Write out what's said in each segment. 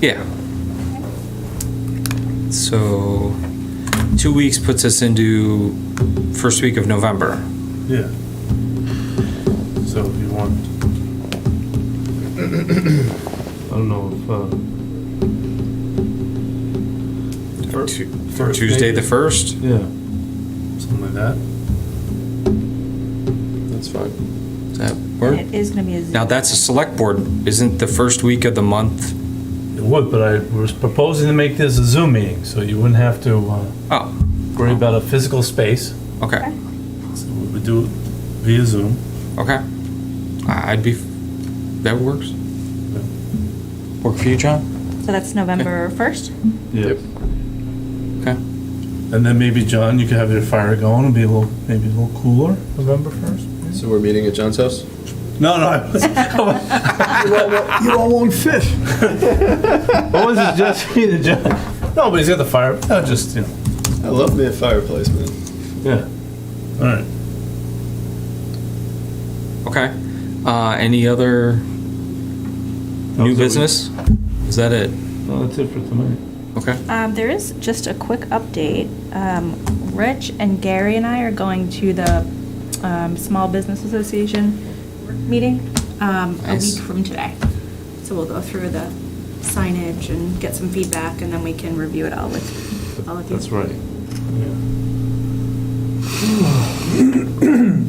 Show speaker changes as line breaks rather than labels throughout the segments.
Yeah. So, two weeks puts us into first week of November.
Yeah. So if you want. I don't know if, uh. fir-
Tu-
first
Tuesday, the
maybe?
first?
Yeah. Something like that.
That's fine.
Does that work?
It is gonna be a Zoom.
Now, that's a select board. Isn't the first week of the month?
It would, but I was proposing to make this a Zoom meeting, so you wouldn't have to, uh,
Oh,
worry about a physical space.
okay,
So we would do it via Zoom.
okay. I- I'd be, that works? Work for you, John?
So that's November 1st?
Yep.
Okay.
And then maybe, John, you could have your fire going, and be a little, maybe a little cooler November first.
So we're meeting at John's house?
No, no, I was,
You all won't fit.
I was just, John. No, but he's got the fire, no, just, you know.
I love me a fireplace, man.
Yeah. All
Okay.
right.
Uh, any other new
was it.
business? Is that it?
No, that's it for tonight.
Okay.
Um, there is just a quick update. Um, Rich and Gary and I are going to the, um, Small Business Association meeting, um, a
Nice.
week from today. So we'll go through the signage and get some feedback, and then we can review it all with all of you.
That's right.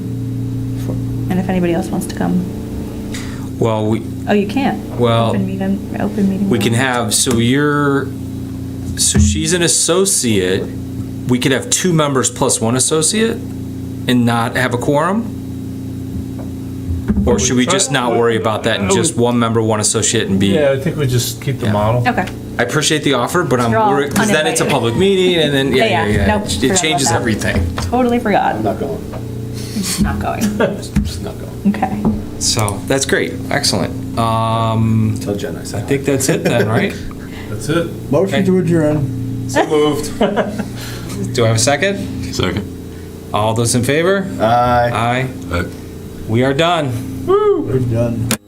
And if anybody else wants to come.
Well, we,
Oh, you can't.
Well,
Open meeting, open meeting.
We can
law.
have, so you're, so she's an associate. We could have two members plus one associate and not have a quorum? Or should we just not worry about that and just one member, one associate and be?
Yeah, I think we just keep the model.
Okay.
I appreciate the offer, but I'm
You're all
worried, because then it's a
uninvited.
public meeting and then, yeah, yeah,
Yeah, yeah.
yeah.
Nope, forgot
It
about
changes
that.
everything,
Totally
I'm
forgot.
not going.
Not going.
Just not going.
Okay.
so that's great, excellent. Um,
Tell Jen I said.
I think that's it then, right?
That's it.
Motion to adjourn.
So moved. Do I have a second?
Second.
All those in favor?
Aye.
Aye.
Aye.
We are done.
We're done.